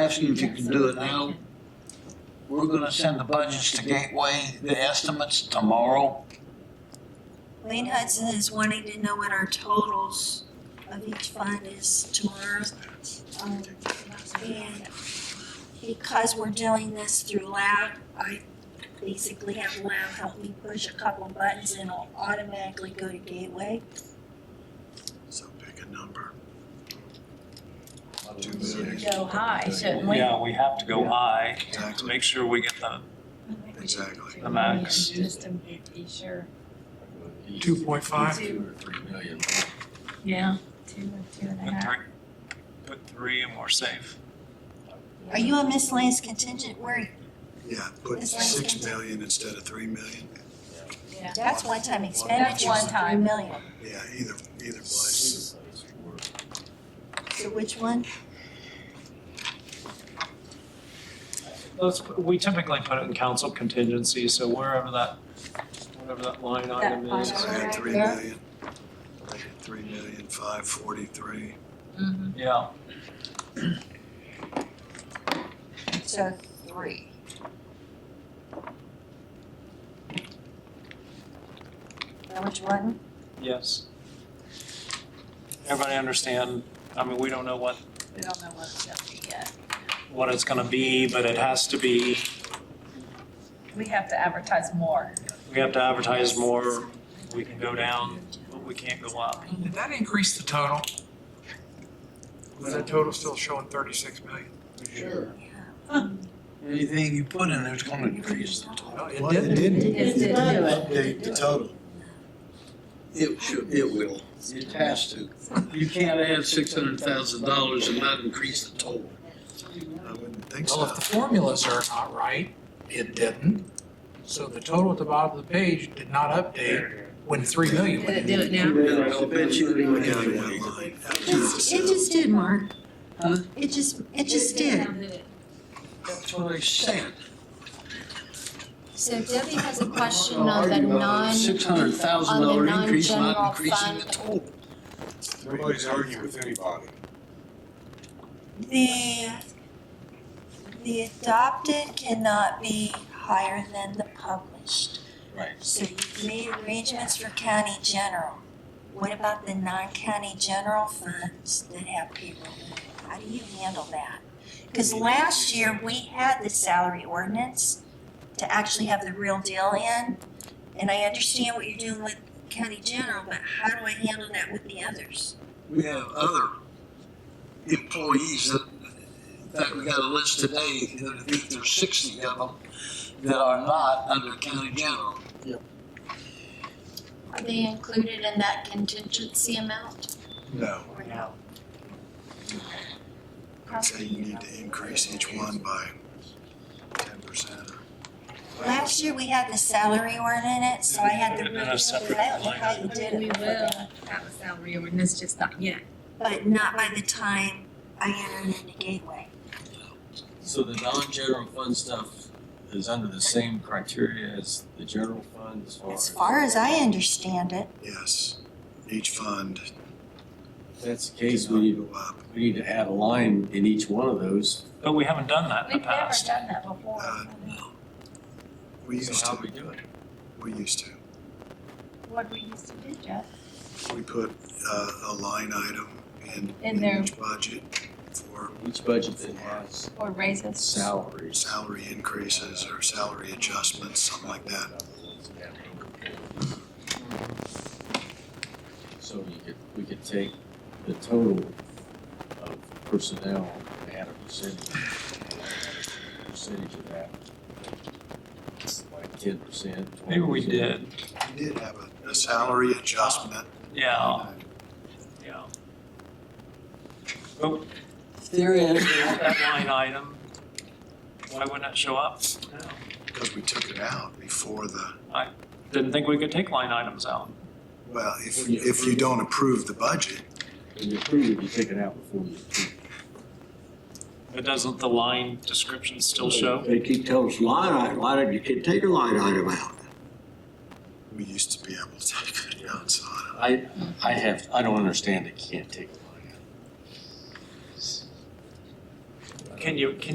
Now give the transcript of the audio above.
asking if you can do it now. We're gonna send the budgets to Gateway, the estimates tomorrow. Wayne Hudson is wanting to know what our totals of each fund is tomorrow. Um, And because we're doing this through Loud, I basically have Loud help me push a couple buttons and it'll automatically go to Gateway. So pick a number. go high, shouldn't we? Yeah, we have to go high to Exactly, make sure we get the, exactly. the max. Just to be sure. Two point five? Two. Yeah. Two, two and a Put half. three, put three and we're safe. Are you a miscellaneous contingent? Where, Yeah, put It's six like- million instead of three million. Yeah. that's one-time That's expenditure, one three time. million. Yeah, either, either place. So which one? Let's, we typically put it in council contingency, so wherever that, whatever that line item line is. So item. add Alright, three there. million. Make it Three million, five forty-three. Mm-hmm. Mhm. Yeah, So three. Now which one? yes. Everybody understand, I mean, we don't know what, We don't know what it's gonna be yet. what it's gonna be, but it has to be, We have to advertise more. we have to advertise more. We can go down, but we can't go up. Did that increase the total? Was that total still showing thirty-six million? Sure. Anything you put in there's gonna increase the total. No, Well, it didn't update the total. It should, it will. It has to. You can't add six hundred thousand dollars and not increase the total. I wouldn't think Well, so. if the formulas are not right, it didn't. So the total at the bottom of the page did not update when three million went in. do it I'll bet you it Look would at anyway. that line. It just, it just did, Mark. Huh? It just, it just did. That's what I said. So Debbie has a question on the non, Six hundred thousand on dollar the increase, non-general not increasing fund. the total. Nobody's arguing with anybody. The, the adopted cannot be higher than the published. Right. So you've made arrangements for county general. What about the non-county general funds that have payroll? How do you handle that? Because last year, we had the salary ordinance to actually have the real deal in. And I understand what you're doing with county general, but how do I handle that with the others? We have other employees that, in fact, we got a list today, that I think there's sixty of them that are not under county general. are they included in that contingency amount? No, Or no? I'd say you need to increase each one by ten percent or Last year, we had the salary ordinance, so I had the And real then a deal, but separate I don't know line how you did it. We will have a salary ordinance, just not yet. But not by the time I entered into Gateway. So the non-general fund stuff is under the same criteria as the general fund as far As as? far as I understand it, Yes, each fund. If that's the case, we need, Go up. we need to add a line in each one of those. But we haven't done that in We've the never past. done that before. Uh, We used So how to, we do it? we used to. What we used to do, Jeff. We put uh, a line item in, In in there. each budget for Each budget then has Or raises. salaries. salary increases or salary adjustments, something like that. So you could, we could take the total of personnel and add a percentage, percentage of that. Like ten percent. Maybe we did, We did have a, a salary adjustment. yeah, yeah. But There is. Oh. that line item, why wouldn't it show up? No. Because we took it out before the, Didn't think we could take line items out. well, if, if you don't approve the budget, When you approve it, you take it out before you approve. But doesn't the line description still show? They keep telling us line item, line item, you can take a line item out. we used to be able to take it out, so I I, I have, I don't understand they can't take a line out. don't. can you, can